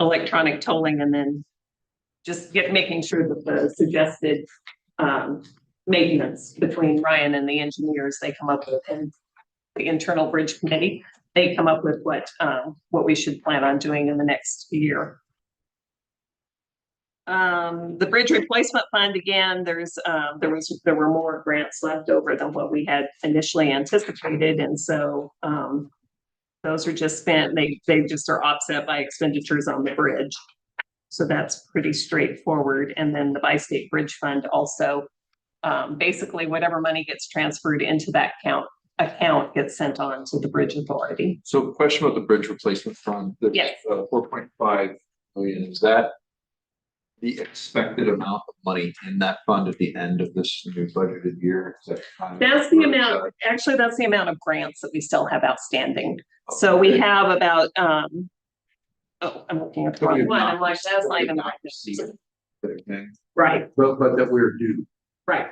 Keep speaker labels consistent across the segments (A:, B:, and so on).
A: electronic tolling and then just get, making sure that the suggested, um, maintenance between Ryan and the engineers they come up with and the internal bridge committee, they come up with what, um, what we should plan on doing in the next year. Um, the bridge replacement fund, again, there's, um, there was, there were more grants left over than what we had initially anticipated, and so, um, those are just spent, they, they just are offset by expenditures on the bridge. So that's pretty straightforward, and then the bi-state bridge fund also, um, basically whatever money gets transferred into that account, account gets sent on to the bridge authority.
B: So question about the bridge replacement fund, the uh,
A: Yes.
B: four point five million, is that the expected amount of money in that fund at the end of this new budgeted year? Is that kind of-
A: That's the amount, actually, that's the amount of grants that we still have outstanding. So we
B: Okay.
A: have about, um, oh, I'm looking at the
B: That we
A: wrong
B: have
A: one.
B: not-
A: I'm like, that's
B: that
A: not
B: we
A: even
B: have
A: the right.
B: not received. Okay,
A: Right,
B: But, but that we're due.
A: right.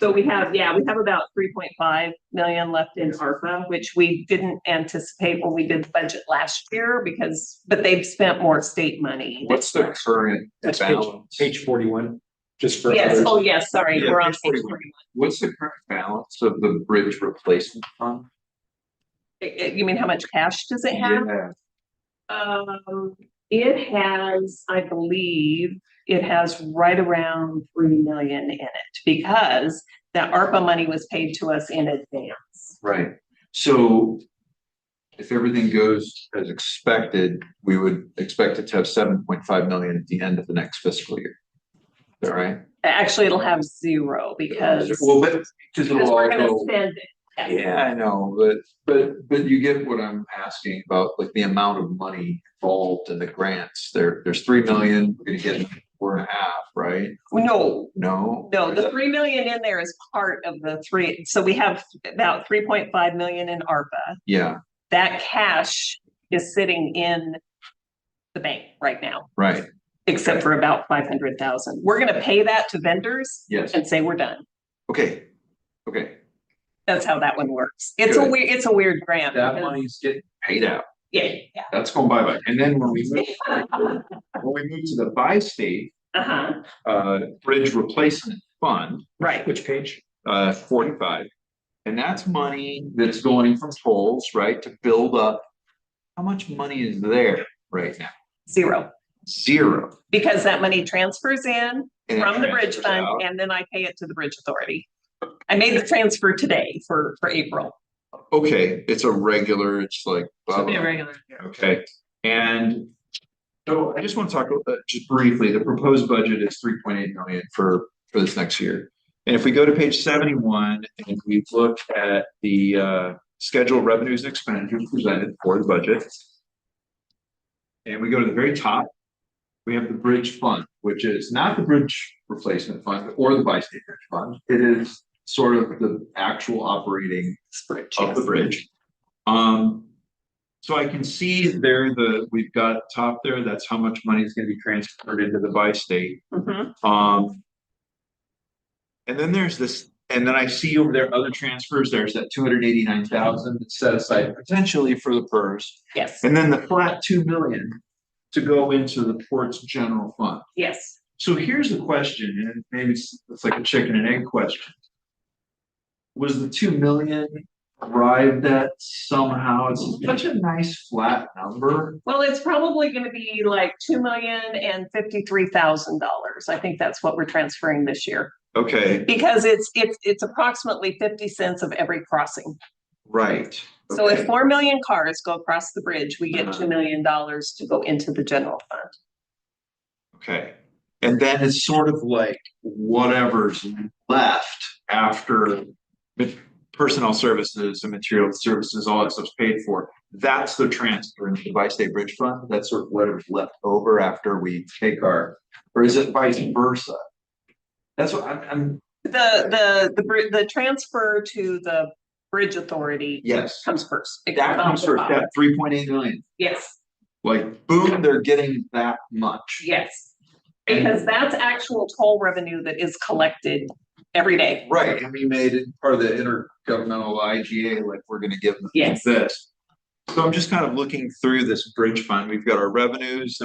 A: So we have, yeah, we have about three point five million left in ARPA, which we didn't anticipate when we did the budget last year because, but they've spent more state money.
B: What's the current
C: That's page-
B: balance?
C: Page forty-one, just for
A: Yes,
C: others.
A: oh, yes, sorry,
B: Yeah,
A: we're on
B: page
A: page
B: 41.
A: forty-one.
B: What's the current balance of the bridge replacement fund?
A: Eh, eh, You mean how much cash does it have?
B: Yeah.
A: Um, it has, I believe, it has right around three million in it because that ARPA money was paid to us in advance.
B: Right, so if everything goes as expected, we would expect it to have seven point five million at the end of the next fiscal year. Is that right?
A: Actually, it'll have zero because.
B: Well, but, because
A: because
B: it'll all
A: we're gonna
B: go.
A: spend it.
B: Yeah, I know, but, but, but you get what I'm asking about, like the amount of money involved in the grants. There, there's three million, we're gonna get four and a half, right?
A: No,
B: No?
A: no, the three million in there is part of the three, so we have about three point five million in ARPA.
B: Yeah,
A: That cash is sitting in the bank right now,
B: right,
A: except for about five hundred thousand. We're gonna pay that to vendors
B: yes,
A: and say we're done.
B: okay, okay.
A: That's how that one works. It's a
B: Good.
A: weird, it's a weird grant.
B: That
A: because-
B: money's getting paid out.
A: Yeah, yeah.
B: That's going bye bye. And then when we move, when we move to the bi-state,
A: Uh-huh,
B: uh, bridge replacement fund,
A: right,
C: Which page?
B: uh, forty-five. And that's money that's going from tolls, right, to build up. How much money is there right now?
A: zero.
B: Zero.
A: Because that money transfers in
B: And it
A: from the bridge
B: transfers
A: fund
B: out.
A: and then I pay it to the bridge authority. I made the transfer today for, for April.
B: Okay, it's a regular, it's like. blah, blah, Okay, and so I just want to talk about, just briefly, the proposed budget is three point eight million for, for this next year. And if we go to page seventy-one and we look at the, uh, scheduled revenues and expenditures presented for the budget. And we go to the very top, we have the bridge fund, which is not the bridge replacement fund or the bi-state bridge fund. It is sort of the actual operating
A: Bridge,
B: of the
A: yes.
B: bridge. Um, so I can see there the, we've got top there, that's how much money is gonna be transferred into the bi-state,
A: Mhm.
B: um. And then there's this, and then I see over there other transfers, there's that two hundred eighty-nine thousand that's set aside potentially for the PERS.
A: Yes,
B: And then the flat two million to go into the port's general fund.
A: yes.
B: So here's the question, and maybe it's, it's like a chicken and egg question. Was the two million arrived at somehow? It's such a nice flat number.
A: Well, it's probably gonna be like two million and fifty-three thousand dollars. I think that's what we're transferring this year.
B: Okay,
A: Because it's, it's, it's approximately fifty cents of every crossing.
B: right.
A: So if
B: okay.
A: four million cars go across the bridge, we get
B: Uh-huh.
A: two million dollars to go into the general fund.
B: Okay, and then it's sort of like whatever's left after. ma- Personnel services and material services, all that stuff's paid for, that's the transfer into the bi-state bridge fund, that's sort of whatever's left over after we take our. Or is it vice versa? That's what I'm, I'm,
A: The, the, the, br- the transfer to the bridge authority
B: yes,
A: comes first. It
B: that
A: off
B: comes
A: the
B: first,
A: top.
B: that three point eight million,
A: Yes,
B: like boom, they're getting that much.
A: yes. Because that's actual toll revenue that is collected every day.
B: Right, and we made it part of the intergovernmental IGA, like we're gonna give them
A: Yes.
B: this. So I'm just kind of looking through this bridge fund. We've got our revenues,